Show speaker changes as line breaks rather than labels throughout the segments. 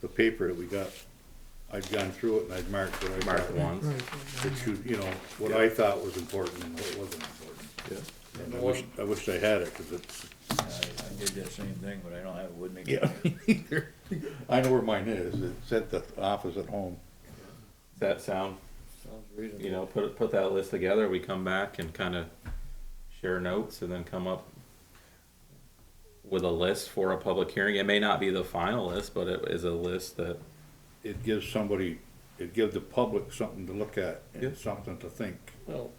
the paper that we got, I'd gone through it and I'd marked what I thought.
Mark ones.
Right,
It should, you know, what I thought was important and what wasn't important.
Yeah.
And I wish, I wish I had it, cause it's,
I, I did that same thing, but I don't have it with me.
yeah, I know where mine is, it's at the office at home.
Does that sound,
Sounds reasonable.
you know, put, put that list together, we come back and kinda share notes and then come up with a list for a public hearing. It may not be the final list, but it is a list that,
It gives somebody, it gives the public something to look at
Yeah.
and something to think.
Well,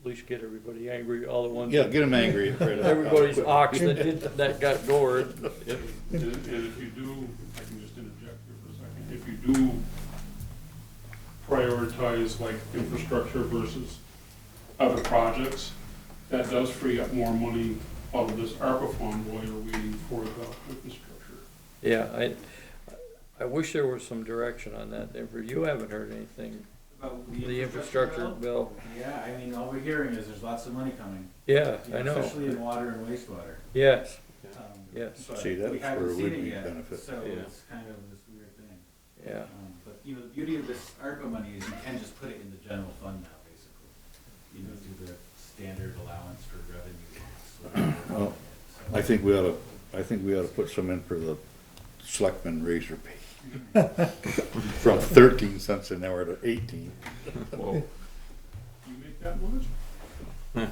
at least get everybody angry, all the ones.
Yeah, get them angry. right off.
Everybody's ox that did, that got gored.
And, and if you do, I can just interject here for a second, if you do prioritize like infrastructure versus other projects, that does free up more money out of this ARPA fund while you're waiting for the infrastructure.
Yeah, I, I wish there was some direction on that, Denver. You haven't heard anything,
About
the infrastructure bill.
Yeah, I mean, all we're hearing is there's lots of money coming.
Yeah,
you
I
know, Especially in
know.
water and wastewater.
Yes,
Um,
Yes.
but
See, that's
we
where
haven't
it
seen
would
it
be
yet,
benefit.
So
Yeah.
it's kind of this weird thing.
yeah.
Um, But, you know, the beauty of this ARPA money is you can just put it in the general fund now, basically. You know, do the standard allowance for revenue. so-
Well, I think we ought to, I think we ought to put some in for the selectmen razor pay. From thirteen cents an hour to eighteen.
You make that much?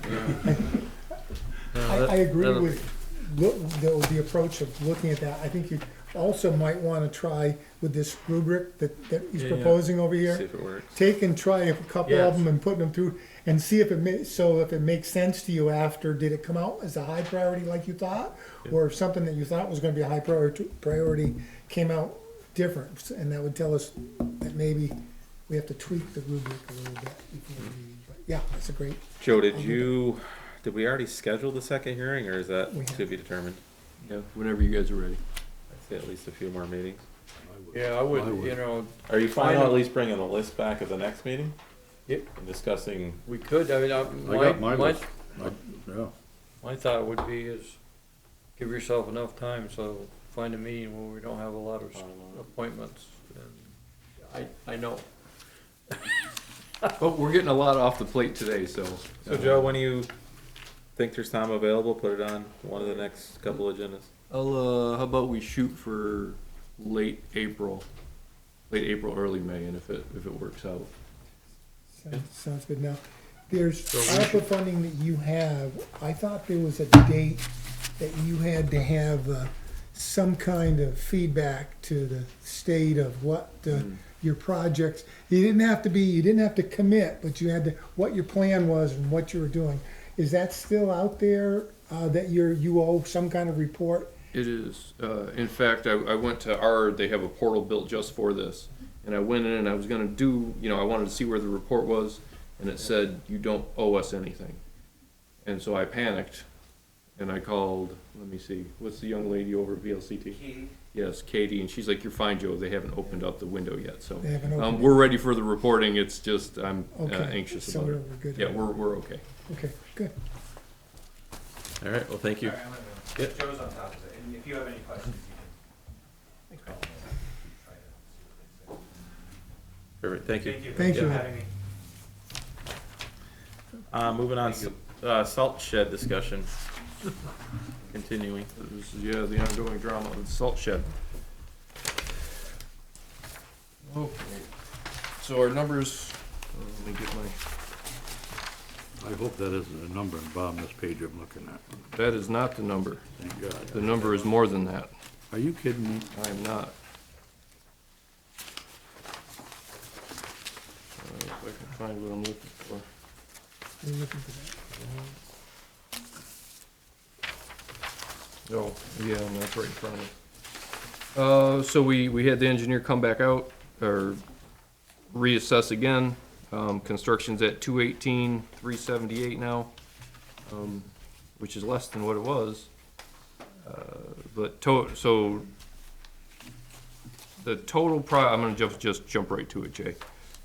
I, I agree
that'll-
with, look, the, the approach of looking at that, I think you also might wanna try with this rubric that, that he's
Yeah, yeah.
proposing over here.
see if it works.
take and try a couple of
Yes.
them and put them through and see if it ma- so if it makes sense to you after did it come out as a high priority like you thought or if something that you thought was going to be a high priority priority came out different and that would tell us that maybe we have to tweak the rubric a little bit before we, but yeah that's a great
Joe, did you, did we already schedule the second hearing or is that
We have.
to be determined?
Yeah, whenever you guys are ready.
I'd say at least a few more meetings.
Yeah, I would, you know,
Are you fine on at
Final.
least bringing the list back at the next meeting?
Yep.
And discussing,
we could, I mean, I,
got
my,
my
my,
list. Yeah.
my thought would be is give yourself enough time, so find a meeting where we don't have a lot of s- appointments. And I, I know.
But we're getting a lot off the plate today, so.
so Joe, when you think there's time available, put it on one of the next couple agendas.
I'll, uh, how about we shoot for late April? Late April, early May, and if it, if it works out.
sounds, sounds good now there's ARPA funding that you have I thought there was a date that you had to have uh, some kind of feedback to the state of what uh,
Hmm.
your projects. You didn't have to be, you didn't have to commit, but you had to what your plan was and what you were doing. Is that still out there uh, that you're you owe some kind of report?
It is, uh, in fact, I, I went to our, they have a portal built just for this. And I went in and I was gonna do, you know, I wanted to see where the report was, and it said, you don't owe us anything. And so I panicked, and I called, let me see, what's the young lady over at VLCT?
Katie,
Yes, Katie, and she's like, "You're fine, Joe. They haven't opened up the window yet, so
They haven't opened
um,
it.
we're ready for the reporting. It's just I'm uh,
Okay,
anxious
so
about
we're,
it.
we're good.
Yeah, we're we're okay.
okay, good.
All right, well, thank you.
sorry, I'm gonna, Joe's on top of it, and if you have any questions, you can. call me. Try to see what
Perfect, thank
they say.
you.
Thank
Thank you
you.
for having me.
Uh, moving on, uh, salt shed discussion. Continuing.
This is yeah, the ongoing drama with the salt shed. Okay, so our numbers. uh, Let me get my.
I hope that isn't a number in Bob, this page I'm looking at,
That is not the number.
thank God.
The number is more than that.
Are you kidding me?
I am not. Uh, if I can find what I'm looking for.
We're looking for that.
Oh, yeah, and that's right in front of it. Uh, so we, we had the engineer come back out, or reassess again. Um, construction's at two eighteen, three seventy-eight now, um, which is less than what it was. Uh, But to, so the total pro, I'm gonna just, just jump right to it, Jay.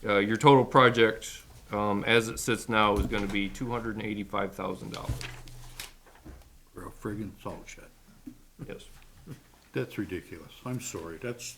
Uh, your total project, um, as it sits now is gonna be two hundred and eighty-five thousand dollars.
We're a friggin' salt shed.
Yes.
That's ridiculous. I'm sorry. That's,